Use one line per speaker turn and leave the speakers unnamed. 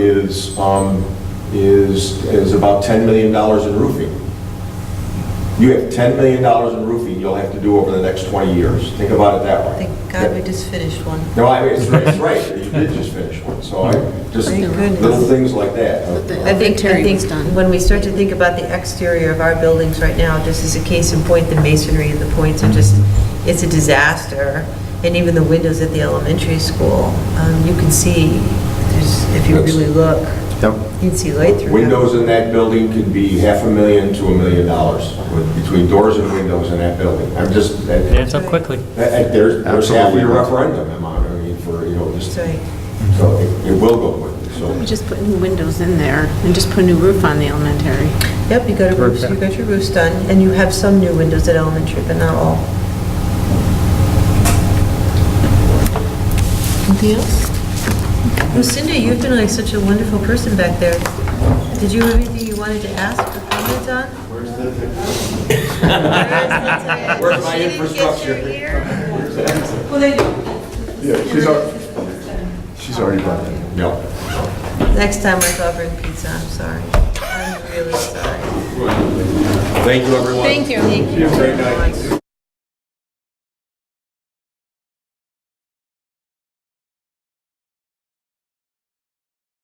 is, um, is, is about $10 million in roofing. You have $10 million in roofing you'll have to do over the next 20 years. Think about it that way.
Thank God we just finished one.
No, I, it's right, it's right, you did just finish one, so I, just
Thank goodness.
little things like that. Uh,
I think, I think when we start to think about the exterior of our buildings right now, just as a case in point, the masonry and the points are just, it's a disaster. And even the windows at the elementary school, um, you can see, there's, if you really look,
Yep.
you can see light through. them.
Windows in that building could be half a million to a million dollars, with- between doors and windows in that building. I'm just, that-
Adds up quickly.
that- there's, there's half of your
Absolutely.
referendum amount, I mean, for, you know, just,
That's right.
so it it will go quickly, so.
We just put new windows in there and just put a new roof on the elementary.
Yep, you got a roof, you got your roofs done, and you have some new windows at elementary, but not all. Anything else? Lucinda, you've been like such a wonderful person back there. Did you have anything you wanted to ask or comment on? Where's the?
Where's my infrastructure?
Yeah, she's already, she's already bought it.
No.
Next time I go bring pizza, I'm sorry. I'm really sorry.
Thank you, everyone.
Thank you.
Thank you.
Have a great
very
night.
much.